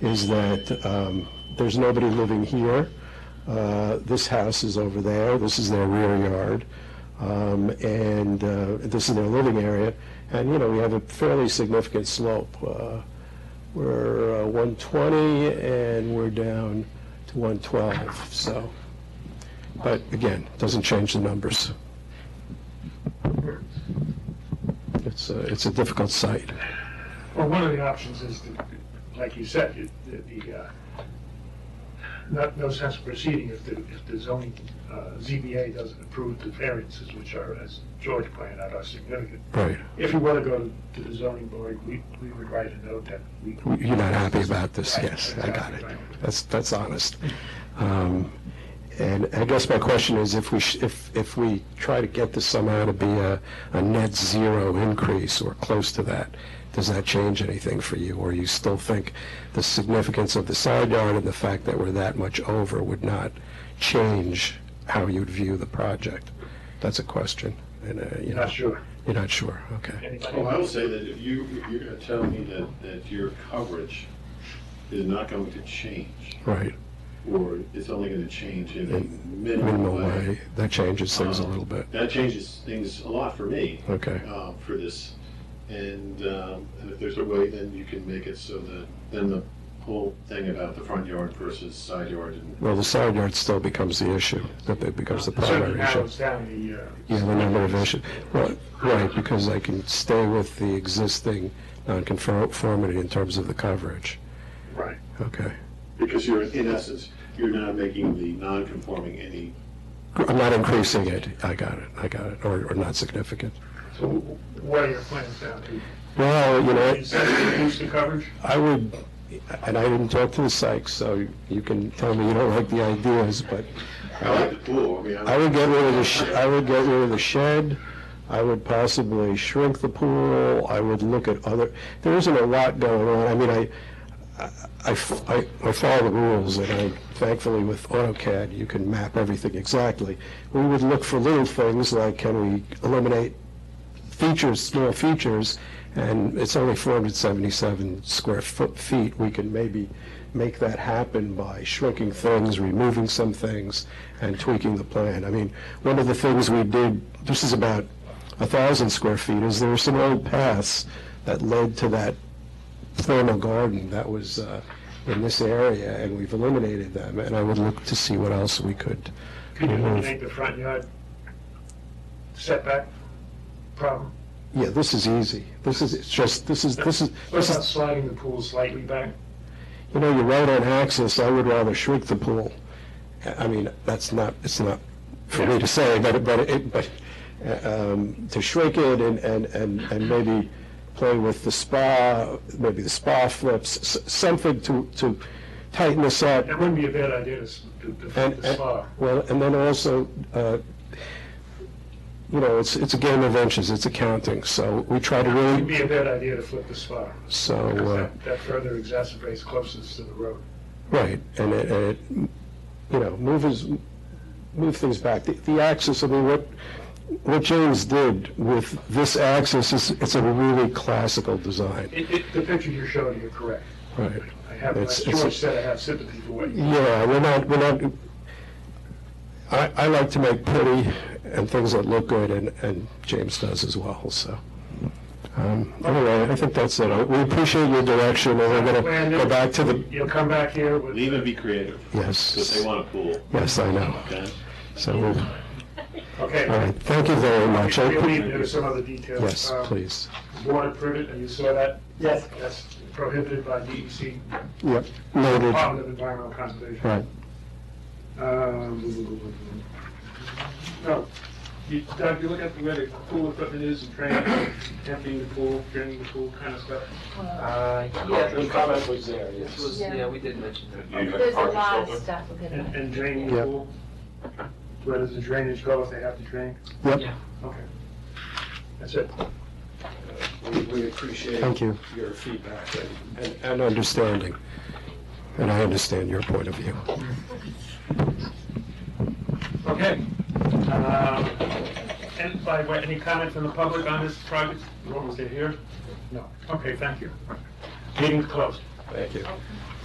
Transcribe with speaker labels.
Speaker 1: is that um, there's nobody living here. Uh, This house is over there, this is their rear yard, um, and uh, this is their living area. And, you know, we have a fairly significant slope. Uh, We're uh, 120 and we're down to 112, so. But again, doesn't change the numbers. It's a, it's a difficult site.
Speaker 2: Well, one of the options is, to, like you said, you- the, the, uh, not, no sense of proceeding if the, if the zoning, uh, ZBA doesn't approve the variances, which are, as George pointed out, are significant.
Speaker 1: Right.
Speaker 2: If you were to go to, to the zoning board, we, we would write a note that we.
Speaker 1: You're not happy about this,
Speaker 2: Right,
Speaker 1: yes, I got it.
Speaker 2: exactly, right.
Speaker 1: That's, that's honest. Um, And I guess my question is, if we, sh- if, if we try to get this somehow to be a, a net zero increase or close to that, does that change anything for you? Or you still think the significance of the side yard and the fact that we're that much over would not change how you'd view the project? That's a question, and, uh, you
Speaker 2: You're
Speaker 1: know,
Speaker 2: Not sure.
Speaker 1: you're not sure, okay.
Speaker 2: Anybody?
Speaker 3: Well, Oh, I will say that if you, if you're gonna tell me that, that your coverage is not going to change,
Speaker 1: Right,
Speaker 3: or it's only gonna change in a
Speaker 1: minimal
Speaker 3: minimal way, um,
Speaker 1: way, that changes things a little bit,
Speaker 3: that changes things a lot for me,
Speaker 1: okay.
Speaker 3: uh, for this. And, um, and if there's a way, then you can make it so that, then the whole thing about the front yard versus side yard and
Speaker 1: Well, the side yard still becomes the issue, that it becomes the
Speaker 2: It certainly
Speaker 1: primary issue.
Speaker 2: narrows down the, uh.
Speaker 1: Yeah, the number of issues, right, right, because I can stay with the existing nonconformity in terms of the coverage,
Speaker 2: Right.
Speaker 1: okay.
Speaker 3: Because you're, in essence, you're not making the non-conforming any,
Speaker 1: I'm not increasing it, I got it, I got it, or, or not significant.
Speaker 2: So what are your plans now? To
Speaker 1: Well, you know,
Speaker 2: is that to reduce the coverage?
Speaker 1: I would, and I didn't talk to the psych, so you can tell me you don't like the ideas, but
Speaker 3: I like the pool, I mean,
Speaker 1: I would
Speaker 3: I
Speaker 1: get rid of the, sh- I would get rid of the shed, I would possibly shrink the pool, I would look at other, there isn't a lot going on, I mean, I, I- I, f- I- I follow the rules, and I, thankfully with AutoCAD, you can map everything exactly. We would look for little things like, can we eliminate features, small features, and it's only 477 square foot, feet, we can maybe make that happen by shrinking things, removing some things, and tweaking the plan. I mean, one of the things we did, this is about 1,000 square feet, is there were some old paths that led to that formal garden that was uh, in this area, and we've eliminated them, and I would look to see what else we could
Speaker 2: Could you
Speaker 1: remove.
Speaker 2: eliminate the front yard setback problem?
Speaker 1: Yeah, this is easy. This is, it's just, this is, this is,
Speaker 2: What
Speaker 1: this is
Speaker 2: about sliding the pool slightly back?
Speaker 1: You know, you're right on axis, I would rather shrink the pool. I I mean, that's not, it's not for me to say, but, but, it- but uh, um, to shrink it and, and, and and maybe play with the spa, maybe the spa flips, s- something to, to tighten this up.
Speaker 2: That wouldn't be a bad idea to, s- to, to fit
Speaker 1: And,
Speaker 2: the
Speaker 1: and-
Speaker 2: spa.
Speaker 1: well, and then also, uh, you know, it's, it's a game of inches, it's accounting, so we try to
Speaker 2: Wouldn't
Speaker 1: really,
Speaker 2: be a bad idea to flip the spa.
Speaker 1: so.
Speaker 2: Because
Speaker 1: uh,
Speaker 2: that- That further exacerbates closeness to the road.
Speaker 1: Right, and it, and it, you know, move is, move things back. The- The axis, I mean, what, what James did with this axis is, it's a really classical design.
Speaker 2: It, it, the picture you're showing, you're correct.
Speaker 1: Right.
Speaker 2: I have, like
Speaker 1: It's- it's-
Speaker 2: George said, I have sympathy for what you.
Speaker 1: Yeah, we're not, we're not, I, I like to make pretty and things that look good, and, and James does as well, so. Um, Anyway, I think that's it. We appreciate your direction, and we're gonna go back to the,
Speaker 2: You'll come back here with.
Speaker 3: leave and be creative, because they
Speaker 1: yes,
Speaker 3: want a pool,
Speaker 1: yes, I know.
Speaker 3: okay?
Speaker 1: So, we'll-
Speaker 2: Okay.
Speaker 1: all right, thank you very much. I-
Speaker 2: We'll leave, there's some other details.
Speaker 1: Yes,
Speaker 2: Um,
Speaker 1: please.
Speaker 2: Water privet, and you saw that? Yes. That's prohibited by DEC,
Speaker 1: Yep, noted.
Speaker 2: Department of Environmental Conservation.
Speaker 1: Right.
Speaker 2: Um, No, you, Doug, you look at where the pool equipment is and training, emptying the pool, draining the pool kind of stuff.
Speaker 4: Uh, yeah,
Speaker 5: The
Speaker 4: it
Speaker 5: comment was there, yes.
Speaker 4: was, yeah, we did mention that.
Speaker 5: Okay.
Speaker 6: There's a lot of stuff we're gonna.
Speaker 2: And, and draining the
Speaker 1: Yep.
Speaker 2: pool. Where does the drainage go if they have to drain?
Speaker 1: Yep,
Speaker 2: Okay. That's it.
Speaker 5: We- We appreciate
Speaker 1: Thank you.
Speaker 5: your feedback and- and
Speaker 1: and understanding. And I understand your point of view.
Speaker 2: Okay. Um, And by way, any comment from the public on this project? What was it here? No. Okay, thank you. Meeting's closed.
Speaker 1: Thank you.